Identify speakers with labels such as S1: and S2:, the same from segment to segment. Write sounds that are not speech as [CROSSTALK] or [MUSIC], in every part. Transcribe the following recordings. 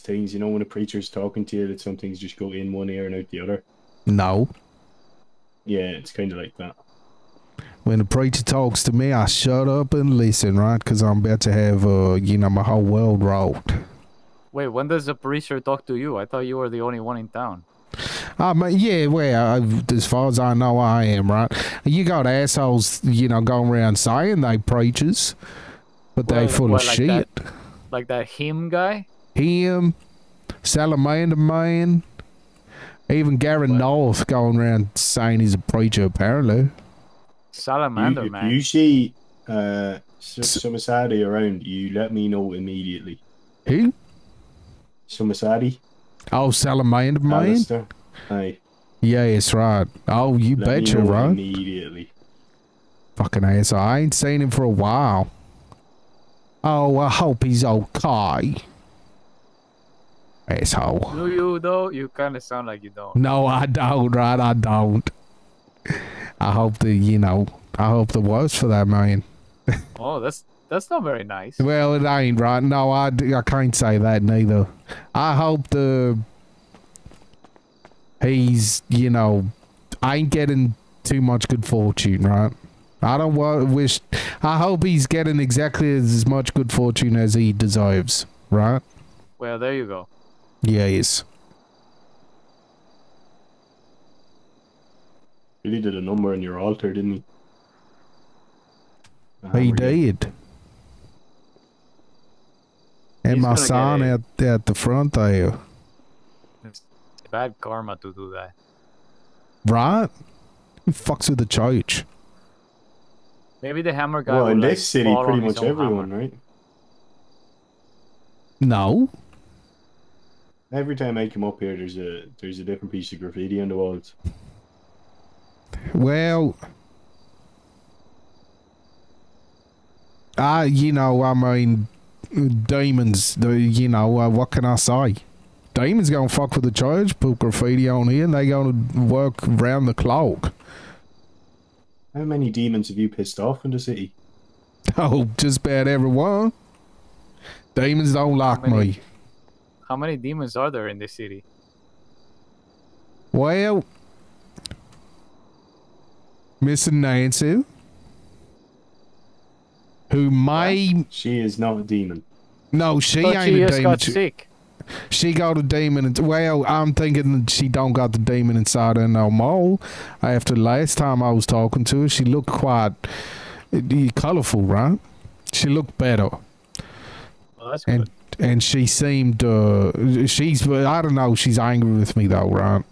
S1: things. You know, when a preacher's talking to you, that some things just go in one ear and out the other.
S2: No.
S1: Yeah, it's kind of like that.
S2: When the preacher talks to me, I shut up and listen, right? Because I'm about to have, uh, you know, my whole world rocked.
S3: Wait, when does the preacher talk to you? I thought you were the only one in town.
S2: I mean, yeah, well, I, as far as I know, I am, right? You got assholes, you know, going around saying they preachers, but they
S3: Well,
S2: full
S3: well,
S2: of
S3: like
S2: shit.
S3: that. Like that him guy?
S2: Him, Salamander Man, even Gary North going around saying he's a preacher, apparently.
S3: Salamander,
S1: you,
S3: man.
S1: you see uh, so,
S2: S-
S1: some Asadi around, you let me know immediately.
S2: Who?
S1: Some Asadi,
S2: Oh, Salamander Man?
S1: Alistair. Aye,
S2: Yes, right. Oh, you
S1: let me
S2: betcha,
S1: know
S2: right?
S1: Immediately.
S2: Fucking asshole. I ain't seen him for a while. Oh, I hope he's okay. Asshole.
S3: Do you, though? You kind of sound like you don't.
S2: No, I don't, right? I don't. I hope the, you know, I hope the worst for that man.
S3: Oh, that's that's not very nice.
S2: Well, it ain't, right? No, I, d- I can't say that neither. I hope the. He's, you know, ain't getting too much good fortune, right? I don't wa- wish. I hope he's getting exactly as much good fortune as he deserves, right?
S3: Well, there you go.
S2: Yes.
S1: Really did a number on your altar, didn't he? The hammer
S2: He
S1: you-
S2: did. And
S3: He's
S2: my
S3: gonna get
S2: son
S3: a-
S2: out at the front there,
S3: It's bad karma to do that.
S2: right? [LAUGHS] He fucks with the church.
S3: Maybe the hammer guy.
S1: Well,
S3: will,
S1: in
S3: like,
S1: this city,
S3: fall
S1: pretty
S3: on his
S1: much
S3: own
S1: everyone,
S3: hammer.
S1: right?
S2: No.
S1: Every time I come up here, there's a there's a different piece of graffiti on the walls.
S2: Well, I, you know, I mean, demons, the- you know, uh, what can I say? Demons gonna fuck with the church, put graffiti on here, and they gonna work round the clock. [LAUGHS]
S1: How many demons have you pissed off in the city?
S2: Oh, just about everyone. Demons don't like
S3: many?
S2: me.
S3: How many demons are there in this city?
S2: Well, Mr. Nancy, who may
S1: She is not a demon.
S2: no, she
S3: Thought
S2: ain't
S3: she
S2: a
S3: just
S2: demon.
S3: got
S2: She,
S3: sick.
S2: she got a demon. ins- well, I'm thinking that she don't got the demon inside her no more. After last time I was talking to her, she looked quite eh, colorful, right? She looked better.
S3: Well, that's
S2: and
S3: good.
S2: and she seemed uh she's I don't know she's angry with me though right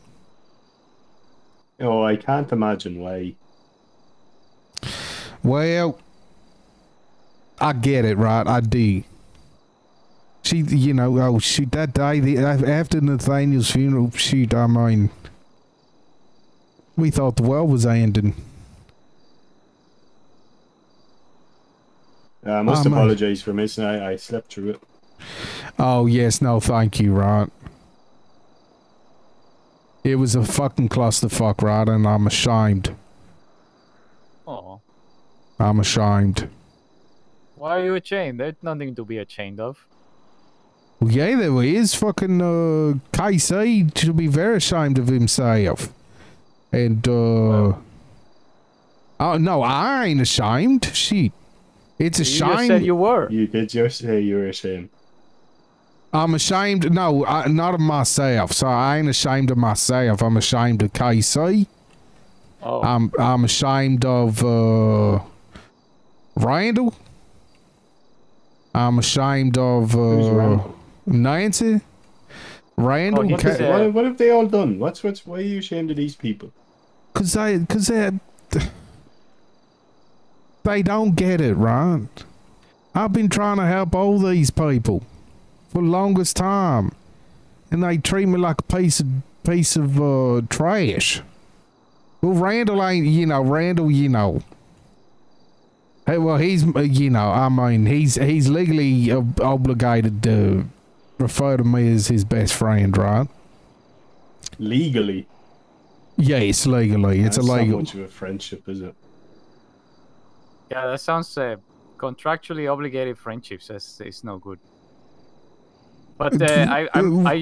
S1: Oh, I can't imagine why.
S2: well I get it right I do she you know oh shoot that day the, after Nathaniel's funeral shoot I mean we thought the world was ending
S1: Uh, I must
S2: Oh, man.
S1: apologize for missing. I, I slept through it.
S2: oh yes no thank you right it was a fucking clusterfuck right and I'm ashamed
S3: Oh,
S2: I'm ashamed
S3: why are you ashamed? There's nothing to be ashamed of.
S2: Well, yeah, there is fucking uh, KC should be very ashamed of himself, and uh, oh no, I ain't ashamed. Shit, it's a
S3: You just
S2: shame.
S3: said you were.
S1: You did just say you were ashamed.
S2: I'm ashamed. No, I, not of myself. So I ain't ashamed of myself. I'm ashamed of KC.
S3: Oh,
S2: I'm I'm ashamed of uh, Randall. I'm ashamed of
S1: Who's
S2: uh,
S1: around?
S2: Nancy. Randall.
S3: Oh, he
S1: What,
S2: Ka-
S3: Okay.
S1: is- what, what have they all done? What's what's? Why are you ashamed of these people?
S2: Cause they, cause they, they don't get it, right? I've been trying to help all these people for the longest time, and they treat me like a piece of piece of uh, trash. Well, Randall ain't, you know, Randall, you know. Hey, well, he's, uh, you know, I mean, he's he's legally ob- obligated to refer to me as his best friend, right?
S1: Legally,
S2: Yes, legally, it's
S1: That's
S2: a legal.
S1: Not much of a friendship, is it?
S3: yeah, that sounds uh, contractually obligated friendships. That's it's no good. But uh, I, I'm, I